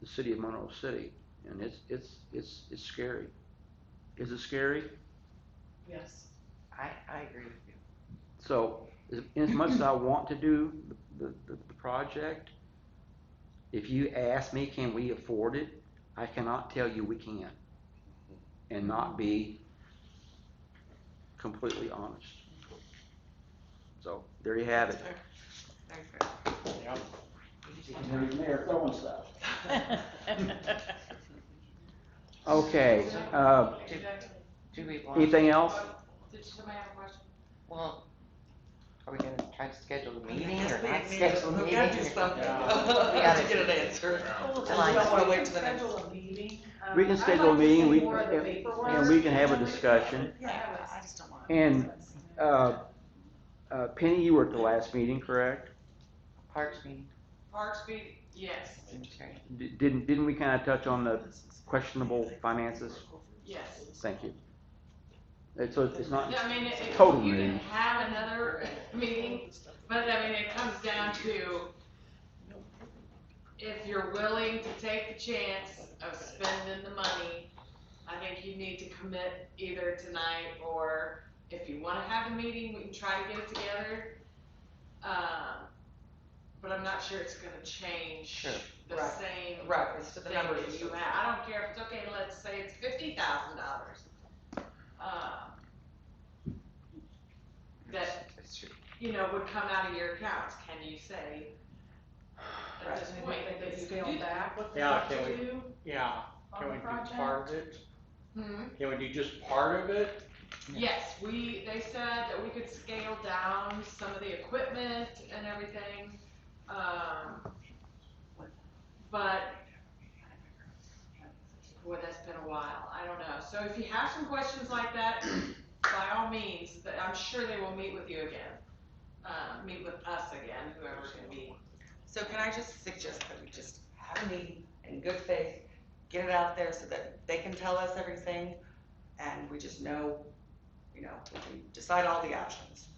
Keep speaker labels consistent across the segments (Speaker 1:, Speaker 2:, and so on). Speaker 1: the city of Monroe City, and it's, it's, it's, it's scary. Is it scary?
Speaker 2: Yes.
Speaker 3: I, I agree with you.
Speaker 1: So, as, as much as I want to do the, the, the project, if you ask me, can we afford it? I cannot tell you we can, and not be completely honest. So, there you have it.
Speaker 3: Very fair.
Speaker 4: Yeah.
Speaker 3: Mm-hmm.
Speaker 5: Mayor throwing stuff.
Speaker 1: Okay, uh,
Speaker 2: Did
Speaker 3: Do we want,
Speaker 1: anything else?
Speaker 2: somebody have a question?
Speaker 3: well, are we gonna try to schedule the meeting or
Speaker 6: Yes,
Speaker 3: not
Speaker 6: we- we-
Speaker 3: schedule the
Speaker 6: we
Speaker 3: meeting?
Speaker 6: gotta do
Speaker 3: or-
Speaker 6: something.
Speaker 3: We
Speaker 6: to
Speaker 3: gotta-
Speaker 6: get an answer.
Speaker 2: Well,
Speaker 3: July.
Speaker 6: We don't wanna wait till the next.
Speaker 2: Schedule a meeting. Um,
Speaker 1: We can
Speaker 2: I'd Um, like
Speaker 1: schedule a
Speaker 2: to
Speaker 1: meeting,
Speaker 2: see
Speaker 1: we-
Speaker 2: more of the
Speaker 1: and-
Speaker 2: paperwork.
Speaker 1: And we can have a discussion.
Speaker 2: Yeah, I
Speaker 6: just don't want.
Speaker 1: And, uh, uh, Penny, you were at the last meeting, correct?
Speaker 3: Parks meeting,
Speaker 2: Parks meeting, yes,
Speaker 3: cemetery.
Speaker 1: D- Didn't, didn't we kinda touch on the questionable finances?
Speaker 2: yes.
Speaker 1: Thank you. It's, so it's not,
Speaker 2: I mean, it- it-
Speaker 1: Total
Speaker 2: you
Speaker 1: meeting.
Speaker 2: can have another meeting, but I mean, it comes down to if you're willing to take the chance of spending the money, I think you need to commit either tonight or if you wanna have a meeting, we can try to get it together. Um, but I'm not sure it's gonna change
Speaker 3: Sure.
Speaker 2: the
Speaker 6: Right.
Speaker 2: same
Speaker 6: Right, it's for the
Speaker 2: thing
Speaker 6: numbers.
Speaker 2: that you have. I don't care if it's okay, let's say it's fifty thousand dollars. um, That,
Speaker 3: That's true.
Speaker 2: you know, would come out of your accounts, can you say? At
Speaker 6: Right.
Speaker 2: this point, that you can do that? What's
Speaker 4: Yeah,
Speaker 2: left
Speaker 4: can
Speaker 2: to
Speaker 4: we-
Speaker 2: do
Speaker 4: Yeah,
Speaker 2: on
Speaker 4: can
Speaker 2: the
Speaker 4: we do
Speaker 2: project?
Speaker 4: part of it?
Speaker 2: Hmm?
Speaker 4: Can we do just part of it?
Speaker 2: Yes, we, they said that we could scale down some of the equipment and everything, um, but, boy, that's been a while, I don't know. So if you have some questions like that, by all means, but I'm sure they will meet with you again, uh, meet with us again, whoever's gonna be.
Speaker 6: So can I just suggest that we just have a meeting in good faith, get it out there so that they can tell us everything, and we just know, you know, we can decide all the options.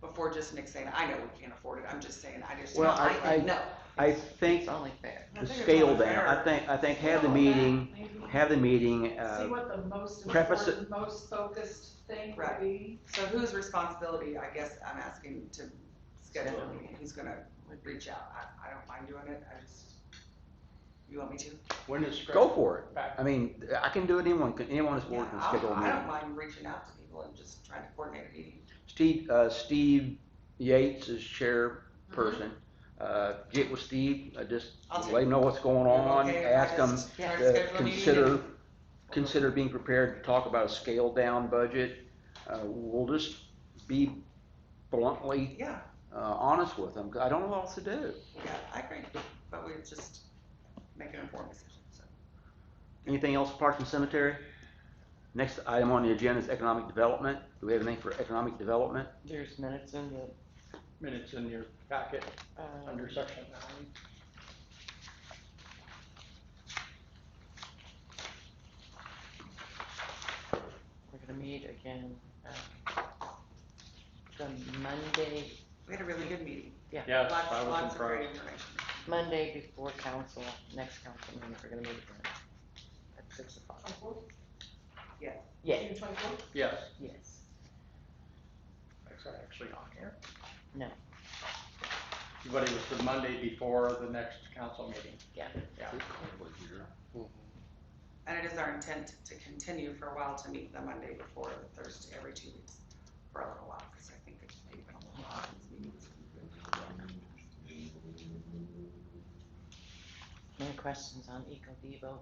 Speaker 6: Before just Nick saying, I know we can't afford it, I'm just saying, I just,
Speaker 1: Well, I-
Speaker 6: I
Speaker 1: I-
Speaker 6: know.
Speaker 1: I think
Speaker 3: It's only fair.
Speaker 6: I
Speaker 1: the
Speaker 6: think it's
Speaker 1: scale
Speaker 6: only
Speaker 1: down, I
Speaker 6: fair.
Speaker 1: think, I think have the meeting,
Speaker 2: Maybe.
Speaker 1: have the meeting,
Speaker 2: See
Speaker 1: uh,
Speaker 2: what the most
Speaker 1: preface it-
Speaker 2: important, most focused thing would
Speaker 6: Right.
Speaker 2: be.
Speaker 6: So whose responsibility, I guess I'm asking to schedule a meeting, who's gonna reach out, I, I don't mind doing it, I just, you want me to?
Speaker 4: When is scratch?
Speaker 1: go for it.
Speaker 4: Back.
Speaker 1: I mean, I can do it, anyone can, anyone is
Speaker 6: Yeah,
Speaker 1: board can
Speaker 6: I'll-
Speaker 1: schedule a
Speaker 6: I don't
Speaker 1: meeting.
Speaker 6: mind reaching out to people and just trying to coordinate a meeting.
Speaker 1: Steve, uh, Steve Yates is chairperson. Uh, get with Steve, uh, just
Speaker 6: Mm-hmm. I'll take
Speaker 1: let him know what's going on,
Speaker 6: Okay,
Speaker 1: ask
Speaker 6: I
Speaker 1: him
Speaker 6: just try to
Speaker 1: to
Speaker 6: schedule a meeting
Speaker 1: consider,
Speaker 6: and-
Speaker 1: consider being prepared to talk about a scaled-down budget. Uh, we'll just be bluntly,
Speaker 6: Yeah,
Speaker 1: uh, honest with them, 'cause I don't know what else to do.
Speaker 6: yeah, I agree, but we just make an informed decision, so.
Speaker 1: Anything else apart from cemetery? Next item on the agenda is economic development. Do we have anything for economic development?
Speaker 3: There's minutes in the,
Speaker 4: Minutes in your packet
Speaker 3: uh,
Speaker 4: under section nine.
Speaker 3: we're gonna meet again, um, the Monday,
Speaker 6: We had a really good meeting,
Speaker 4: Yes,
Speaker 6: lots,
Speaker 4: I was
Speaker 6: lots of great
Speaker 4: impressed.
Speaker 6: information.
Speaker 3: Monday before council, next council meeting, we're gonna meet again. At six o'clock.
Speaker 6: Yeah.
Speaker 3: Yes,
Speaker 4: Yes,
Speaker 3: yes.
Speaker 4: that's actually on here.
Speaker 3: No.
Speaker 4: But it was the Monday before the next council meeting.
Speaker 6: And it is our intent to continue for a while to meet the Monday before the Thursday, every two weeks, for a little while, because I think it's maybe been a little while since meetings.
Speaker 3: Any questions on Eco Devo?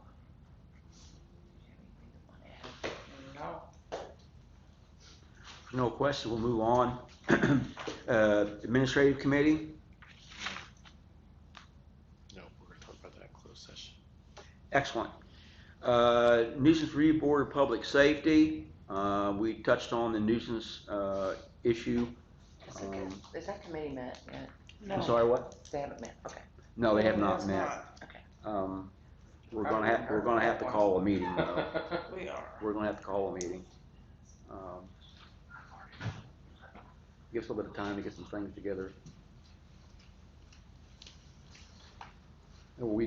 Speaker 3: Anything you wanna add?
Speaker 6: No.
Speaker 1: No questions, we'll move on. Uh, Administrative committee,
Speaker 7: No, we're gonna talk about that in closed session.
Speaker 1: excellent. Uh, Nuisance Review Board of Public Safety, uh, we touched on the nuisance uh, issue.
Speaker 3: Is it good?
Speaker 1: Um,
Speaker 3: Is that committee met yet?
Speaker 1: I'm sorry, what?
Speaker 3: They haven't met, okay.
Speaker 1: No, they have
Speaker 6: It's
Speaker 1: not met.
Speaker 6: not.
Speaker 1: Um, We're gonna have, we're gonna have to call a meeting though.
Speaker 6: We are.
Speaker 1: We're gonna have to call a meeting. Um, Give us a little bit of time to get some things together. And we